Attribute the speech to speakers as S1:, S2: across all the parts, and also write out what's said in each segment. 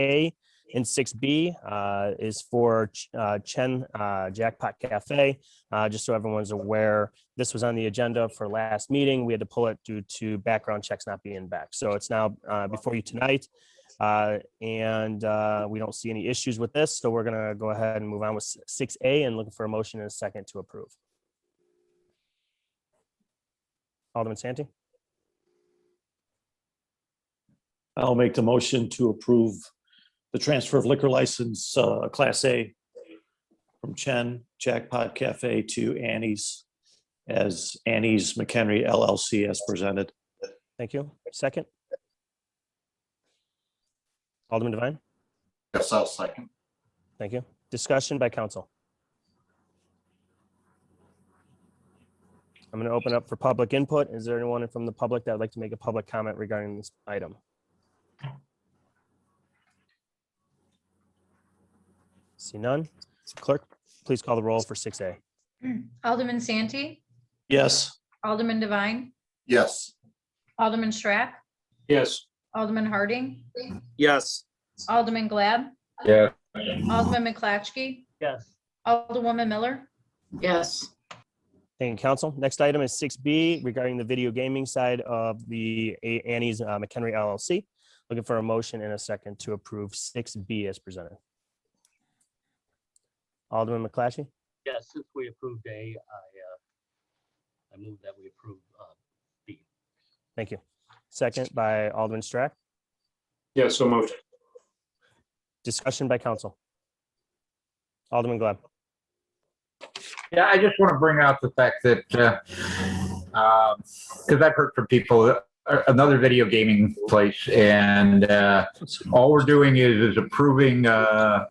S1: A and six B uh, is for Ch- uh, Chen uh, Jackpot Cafe. Uh, just so everyone's aware, this was on the agenda for last meeting. We had to pull it due to background checks not being back. So it's now uh, before you tonight. Uh, and uh, we don't see any issues with this, so we're gonna go ahead and move on with six A and looking for a motion and a second to approve. Alderman Santee,
S2: I'll make the motion to approve the transfer of liquor license, uh, Class A from Chen Jackpot Cafe to Annie's as Annie's McHenry LLC as presented.
S1: thank you. Second. Alderman Devine,
S3: Yes, I'll second.
S1: thank you. Discussion by council. I'm gonna open up for public input. Is there anyone from the public that would like to make a public comment regarding this item? See none? Clerk, please call the roll for six A.
S4: Hmm. Alderman Santee,
S2: Yes,
S4: Alderman Devine,
S3: Yes,
S4: Alderman Strack,
S5: Yes.
S4: Alderman Harding,
S5: Yes.
S4: Alderman Glad.
S6: Yeah.
S4: Alderman McClatchy,
S5: Yes.
S4: Alderwoman Miller,
S7: Yes,
S1: Thank you, council. Next item is six B regarding the video gaming side of the A- Annie's uh, McHenry LLC. Looking for a motion in a second to approve six B as presented. Alderman McClatchy,
S5: Yes, since we approved A, I, uh, I move that we approve, uh,
S1: thank you. Second by Alderman Strack,
S6: Yeah, so moved.
S1: discussion by council. Alderman Glad,
S6: Yeah, I just want to bring out the fact that, because I've heard from people, uh, another video gaming place, and uh, all we're doing is is approving uh,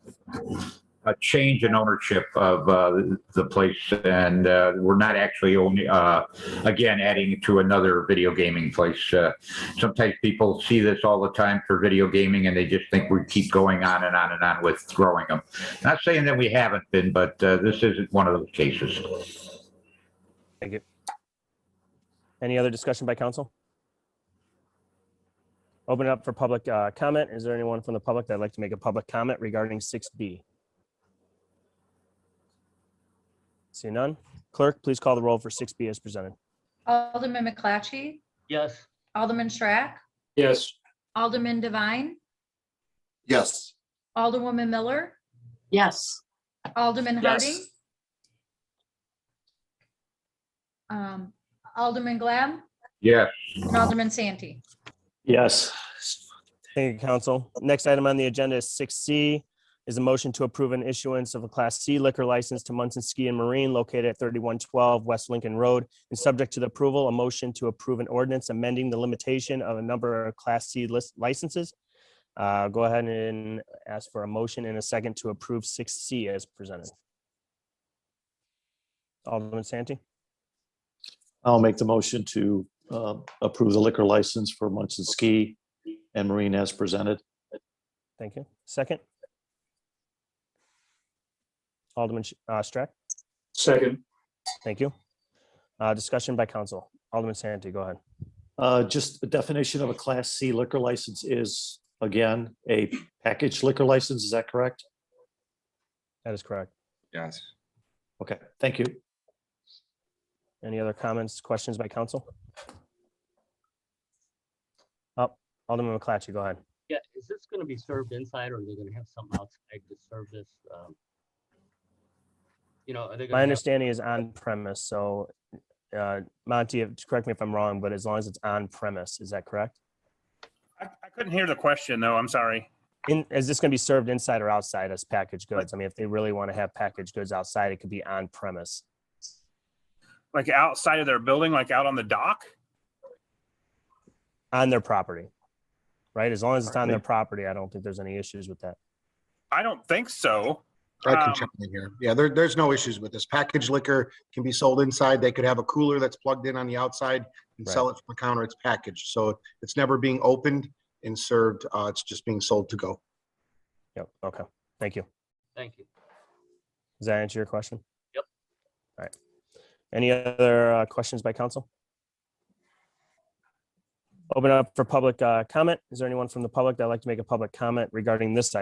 S6: a change in ownership of uh, the place, and uh, we're not actually only, uh, again, adding to another video gaming place. Uh, Sometimes people see this all the time for video gaming, and they just think we keep going on and on and on with throwing them. Not saying that we haven't been, but uh, this isn't one of those cases.
S1: any other discussion by council? Open it up for public uh, comment. Is there anyone from the public that'd like to make a public comment regarding six B? See none? Clerk, please call the roll for six B as presented.
S4: Alderman McClatchy,
S5: yes.
S4: Alderman Strack,
S5: Yes.
S4: Alderman Devine,
S3: yes,
S4: Alderwoman Miller,
S7: yes,
S4: Alderman
S5: Yes.
S4: Harding. um, Alderman Glad
S6: Yeah,
S4: and Alderman Santee.
S2: yes,
S1: Thank you, council. Next item on the agenda is six C is a motion to approve an issuance of a Class C liquor license to Munson Ski and Marine located at thirty-one twelve West Lincoln Road. And subject to the approval, a motion to approve an ordinance amending the limitation of a number of Class C list licenses. Uh, go ahead and ask for a motion in a second to approve six C as presented. Alderman Santee,
S2: I'll make the motion to uh, approve the liquor license for Munson Ski and Marine as presented.
S1: thank you. Second? Alderman Sh- uh, Strack?
S5: Second.
S1: Thank you. Uh, Discussion by council. Alderman Santee, go ahead.
S2: Uh, Just the definition of a Class C liquor license is, again, a packaged liquor license, is that correct?
S1: That is correct.
S6: yes.
S2: Okay, thank you.
S1: Any other comments, questions by council? Up, Oh, Alderman McClatchy, go ahead.
S5: Yeah, is this gonna be served inside or are they gonna have something outside to serve this? um, You know, are they?
S1: My
S5: gonna have-
S1: understanding is on premise, so uh, Monty, if- correct me if I'm wrong, but as long as it's on premise, is that correct?
S8: I, I couldn't hear the question though. I'm sorry.
S1: And is this going to be served inside or outside as packaged goods? I mean, if they really want to have packaged goods outside, it could be on premise.
S8: Like outside of their building, like out on the dock?
S1: On their property. Right? As long as it's on their property, I don't think there's any issues with that.
S8: I don't think so.
S9: I
S8: Um,
S9: can chime in here. Yeah, there, there's no issues with this. Packaged liquor can be sold inside. They could have a cooler that's plugged in on the outside and sell it from the counter. It's packaged. So it's never being opened and served. Uh, it's just being sold to go.
S1: Yep. Okay. Thank you.
S5: Thank you.
S1: Does that answer your question?
S5: Yep.
S1: All right. Any other uh, questions by council? open up for public uh, comment. Is there anyone from the public that'd like to make a public comment regarding this item?